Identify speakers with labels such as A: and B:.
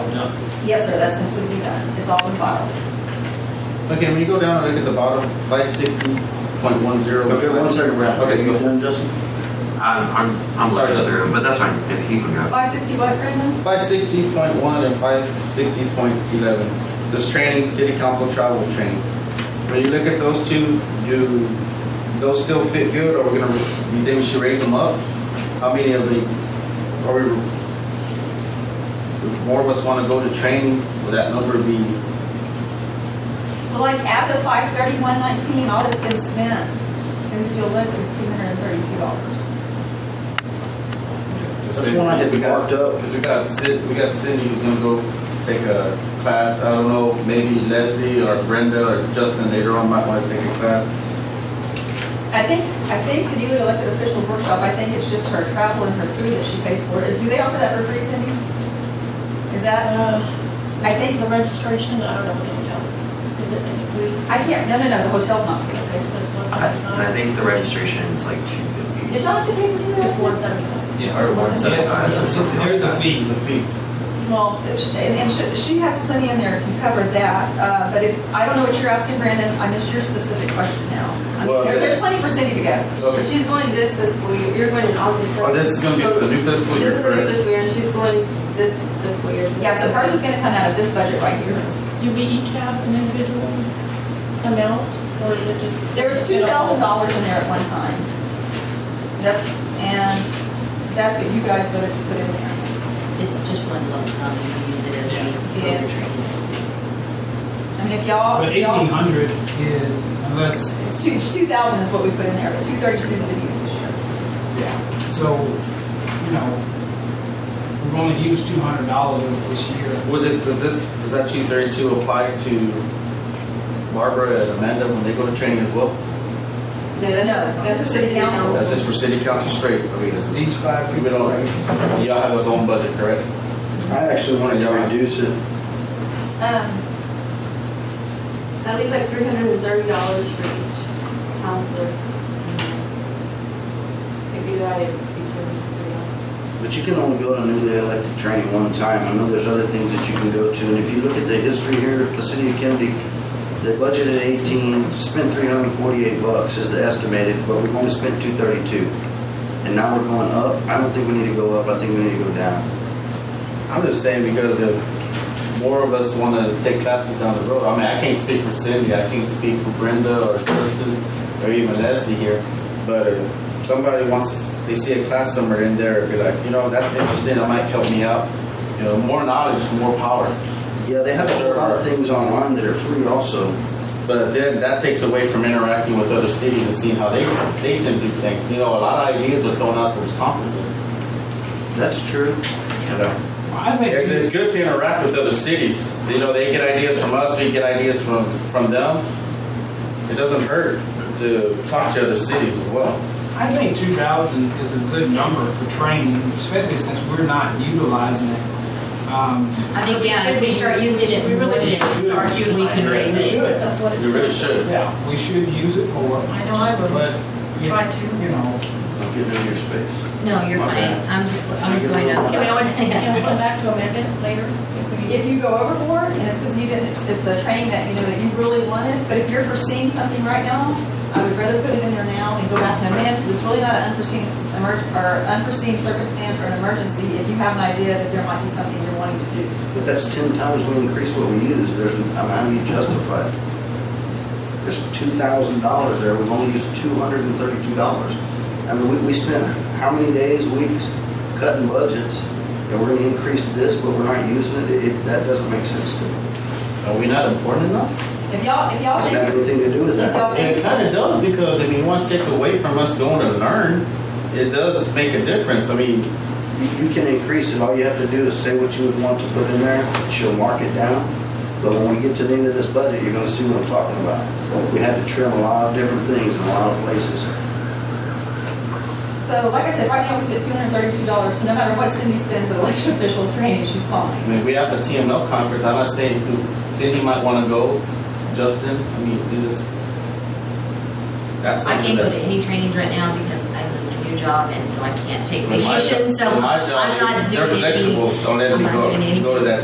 A: done.
B: Yes, sir, that's completely done. It's all in file.
A: Okay, when you go down and look at the bottom, five sixty point one zero.
C: Okay, one second, Ralph.
A: Okay,
C: You
A: go.
C: done, Justin?
D: I'm, I'm, I'm
A: Sorry,
D: looking
A: Justin.
D: through, but that's fine. If he can go.
B: Five sixty what, Brandon?
A: Five sixty point one and five sixty point eleven. This training, city council travel training. When you look at those two, do those still fit good, or we're gonna, you think we should raise them up? How many of the, are we, if more of us wanna go to training, would that number be,
B: Well, like, as of five thirty-one nineteen, all that's been spent in fuel lift is two hundred and thirty-two dollars.
C: That's one I had
A: We got-
C: marked up.
A: Cause we got Sid, we got Cindy who's gonna go take a class, I don't know, maybe Leslie or Brenda or Justin later on might wanna take a class.
B: I think, I think the newly elected officials workshop, I think it's just her travel and her food that she pays for. Do they offer that for free, Cindy? Is that,
E: Uh,
B: I think,
E: the registration, I don't know what it counts. Is it included?
B: I can't, no, no, no, the hotel's not free.
E: Okay, so it's one
D: I, and I
E: seventy-five.
D: think the registration is like two fifty.
B: Did y'all have to pay for
E: It's
B: that?
E: one seventy-five.
D: Yeah, or one seventy five.
F: Yeah, so There's a fee.
C: The fee.
B: Well, and, and she, she has plenty in there to cover that, uh, but if, I don't know what you're asking, Brandon, I missed your specific question now. I mean,
A: Well,
B: there-
A: yeah.
B: there's plenty for Cindy to go.
A: Okay.
G: She's going this fiscal year, you're going in August.
A: Oh, this is gonna be for the new fiscal year.
G: This is the new
A: correct?
G: fiscal year, and she's going this fiscal year.
B: Yeah, so hers is gonna come out of this budget right here.
E: Do we each have an individual amount, or is it just?
B: There was two thousand dollars in there at one time. That's, and that's what you guys voted to put in there.
H: It's just one lump sum, you use it as
F: Yeah.
H: a
B: Yeah.
H: program training.
B: I mean, if y'all,
F: But
B: if
F: eighteen
B: y'all,
F: hundred is unless,
B: it's two, two thousand is what we put in there, but two thirty-two is been used this year.
F: yeah, so, you know, we're gonna use two hundred dollars this year.
A: Would it, does this, does that two thirty-two apply to Barbara and Amanda when they go to training as well?
G: No,
B: No, that's the city council.
A: That's just for city council straight, I mean, it's-
F: Each five
A: we
F: people.
A: don't, y'all have his own budget, correct?
C: I actually wanted to reduce it.
B: Um,
G: That leaves like three hundred and thirty dollars for each counselor. If you add it, each one is three dollars.
C: But you can only go to newly elected training one time. I know there's other things that you can go to, and if you look at the history here, the city of Kennedy, they budgeted eighteen, spent three hundred and forty-eight bucks is the estimated, but we've only spent two thirty-two. And now we're going up. I don't think we need to go up. I think we need to go down.
A: I'm just saying because if more of us wanna take classes down the road, I mean, I can't speak for Cindy, I can't speak for Brenda or Kristen or even Leslie here, but if somebody wants, they see a class somewhere in there, be like, you know, that's interesting, that might help me out. You know, more knowledge, more power.
C: Yeah, they have a whole lot of things online that are free also.
A: But then that takes away from interacting with other cities and seeing how they they tend to do things. You know, a lot of ideas are thrown out those conferences.
C: That's true.
A: You know,
F: I think.
A: it's, it's good to interact with other cities. You know, they get ideas from us, we get ideas from from them. It doesn't hurt to talk to other cities as well.
F: I think two thousand is a good number for training, especially since we're not utilizing it. Um,
H: I think, yeah, if we start using it,
E: We
H: we
E: really
H: really
F: should.
H: start,
F: We
H: we can raise
F: really
H: it.
F: should.
E: That's what it's.
A: We really should.
F: yeah, we should use it more.
E: I know I would.
F: But, you-
E: Try to.
F: you know,
C: I'm getting in your space.
H: No, you're
C: My
H: fine,
C: bad.
H: I'm just, I'm going up.
E: Can we always, can we come back to amend it later? If we-
B: if you go overboard, and it's because you didn't, it's a training that, you know, that you really wanted, but if you're foreseeing something right now, I would rather put it in there now and go back and amend, because it's really not an unforeseen, emer- or unforeseen circumstance or an emergency, if you have an idea that there might be something you're wanting to do.
C: But that's ten times we increase what we use, there's, I mean, how do you justify it? There's two thousand dollars there, we've only used two hundred and thirty-two dollars. I mean, we, we spent how many days, weeks cutting budgets, and we're gonna increase this, but we're not using it, it, it- that doesn't make sense to me.
A: Are we not important enough?
B: If y'all, if y'all
C: Doesn't have
B: think,
C: anything to do with
B: if
C: that.
B: y'all think.
A: It kind of does because if you want to take away from us going to learn, it does make a difference. I mean,
C: You you can increase it, all you have to do is say what you would want to put in there, she'll mark it down. But when we get to the end of this budget, you're gonna see what I'm talking about. We had to trim a lot of different things in a lot of places.
B: So like I said, right now we spent two hundred thirty-two dollars, so no matter what Cindy spends at election officials training, she's
A: I
B: fine.
A: mean, we have the TML conference. I'm not saying who- Cindy might want to go, Justin. I mean, this is that's
H: I
A: something
H: can't go to
A: that
H: any trainings right now because I'm in a new job and so I can't take
A: with my job-
H: vacation, so
A: with my job,
H: I'm not doing
A: They're
H: any.
A: flexible. Don't let
H: I'm
A: me
H: not doing
A: go
H: anything.
A: go to that